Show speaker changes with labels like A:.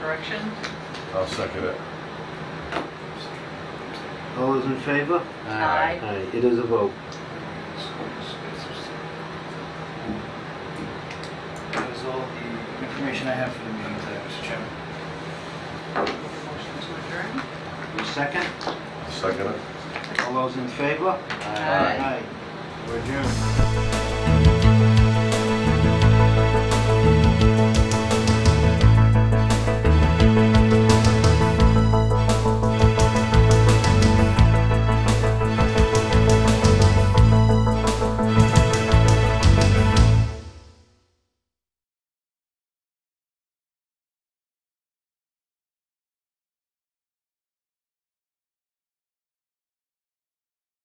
A: direction.
B: I'll second it.
C: All those in favor?
A: Aye.
C: Aye, it is a vote.
D: That is all the information I have for the meeting today, Mr. Chairman.
A: Motion to adjourn.
C: Your second?
B: Second it.
C: All those in favor?
A: Aye.
C: Aye. We're adjourned.